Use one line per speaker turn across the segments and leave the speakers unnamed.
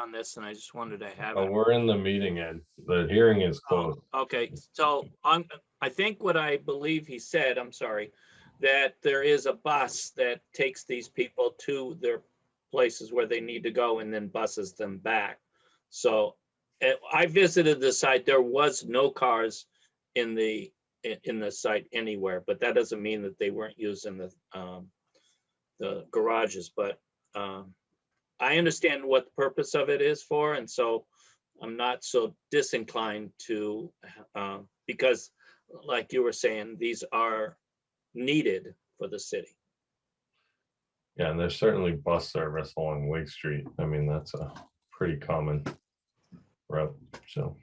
on this and I just wanted to have
Oh,
it.
we're in the meeting, Ed. The hearing is
Oh,
closed.
Okay, so I'm, I think what I believe he said, I'm sorry, that there is a bus that takes these people to their places where they need to go and then buses them back. So eh, I visited the site, there was no cars in the, in, in the site anywhere, but that doesn't mean that they weren't using the, um, the garages, but, um, I understand what the purpose of it is for, and so I'm not so disinclined to, um, because like you were saying, these are needed for the city.
Yeah, and there's certainly bus service along Wake Street. I mean, that's a pretty common route, so.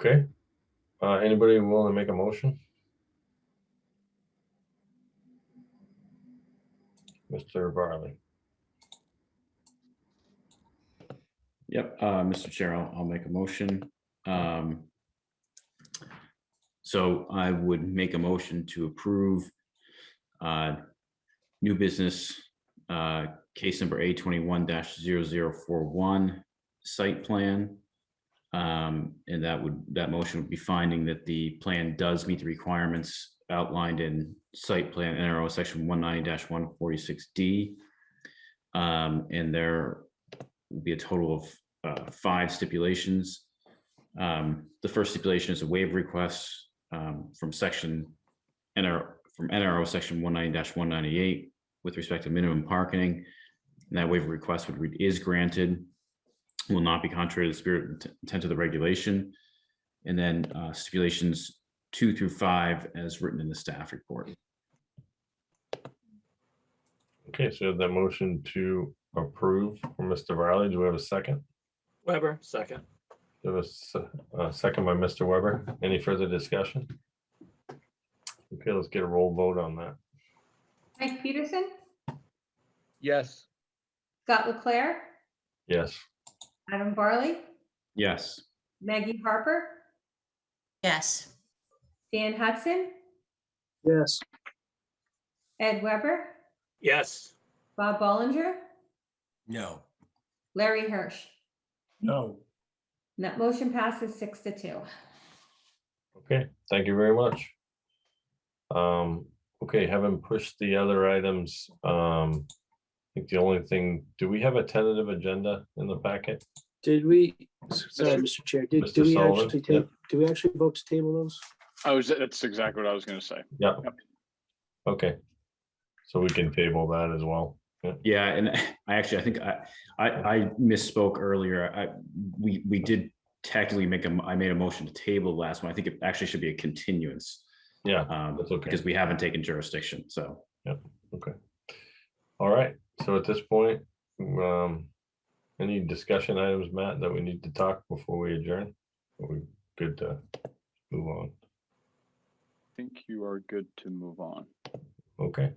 Okay, uh, anybody willing to make a motion? Mr. Barley,
Yep, uh, Mr. Chair, I'll, I'll make a motion. Um, So I would make a motion to approve uh, new business, uh, case number A twenty-one 41 site plan. Um, And that would, that motion would be finding that the plan does meet the requirements outlined in site plan NRO section one ninety one forty-six D. Um, And there will be a total of uh, five stipulations. Um, The first stipulation is a waiver request um, from section NR, from NRO section 190-198 with respect to minimum parking. And that waiver request would read is granted, will not be contrary to the spirit and intent of the regulation. And then uh, stipulations two through five as written in the staff report.
okay, so that motion to approve from Mr. Barley, do we have a second?
Weber, second.
There was uh, a second by Mr. Weber. Any further discussion? Okay, let's get a roll vote on that.
Mike Peterson,
Yes.
Scott Leclair,
Yes.
Adam Barley,
Yes.
Maggie Harper,
yes,
Dan Hudson,
Yes.
Ed Weber,
Yes,
Bob Ballinger,
no,
Larry Hirsch.
No.
And That motion passes six to two.
Okay, thank you very much. Um, okay, having pushed the other items, um, I think the only thing, do we have a tentative agenda in the packet?
Did we, sorry, Mr. Chair, did,
Mr.
do we
Sullivan?
actually
Yeah.
take, do we actually vote to table those?
I was, that's exactly what I was gonna say.
Okay. So we can table that as well.
Yeah, and I actually, I think I, I, I misspoke earlier. I, we, we did technically make a, m- I made a motion to table the last one. I think it actually should be a continuance.
Yeah,
um,
that's okay.
Because we haven't taken jurisdiction, so.
All right, so at this point, um, any discussion items, Matt, that we need to talk before we adjourn? Are we good to move on?
I think you are good to move on.
Okay,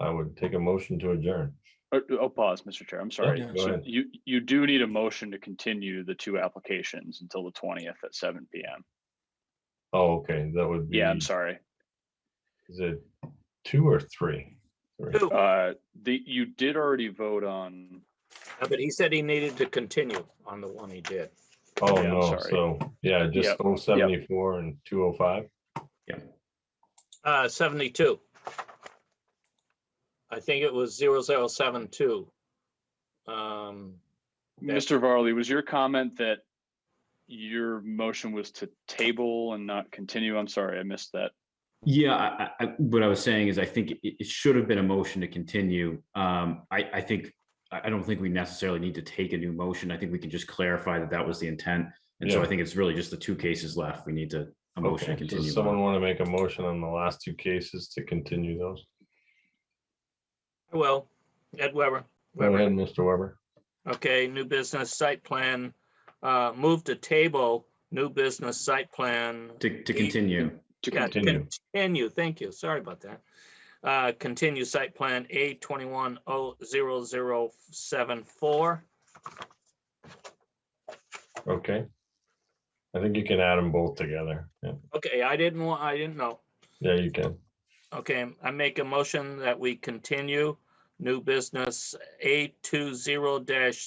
I would take a motion to adjourn.
Oh, oh, pause, Mr. Chair, I'm sorry.
Yeah.
Go
So
ahead.
you, you do need a motion to continue the two applications until the twentieth at seven PM.
Oh, okay, that would be.
Yeah, I'm sorry.
Is it two or three? Three.
Two.
Uh, the, you did already vote on,
Uh, but he said he needed to continue on the one he did.
Oh,
Yeah, I'm
no,
sorry.
so, yeah, just
Yep,
oh seventy-four and two oh five.
Uh, 72. I think it was 0072. Um, That's-
Mr. Varley, was your comment that your motion was to table and not continue? I'm sorry, I missed that.
Yeah, I, I, I- what I was saying is I think it, it should have been a motion to continue. Um, I, I think, I, I don't think we necessarily need to take a new motion. I think we can just clarify that that was the intent. And so
Yeah.
I think it's really just the two cases left. We need to, a motion to
Okay, so
continue. on.
someone want to make a motion on the last two cases to continue those?
well, Ed Weber.
Go ahead, Mr. Weber.
Okay, new business site plan, uh, move to table, new business site plan.
To, to
E-
continue.
To
Yeah,
continue,
continue.
Continue, thank you, sorry about that. Uh, continue site plan A twenty-one oh zero zero seven four.
Okay. I think you can add them both together. Yeah,
Okay, I didn't want, I didn't know.
yeah, you can.
Okay, I make a motion that we continue new business A two zero dash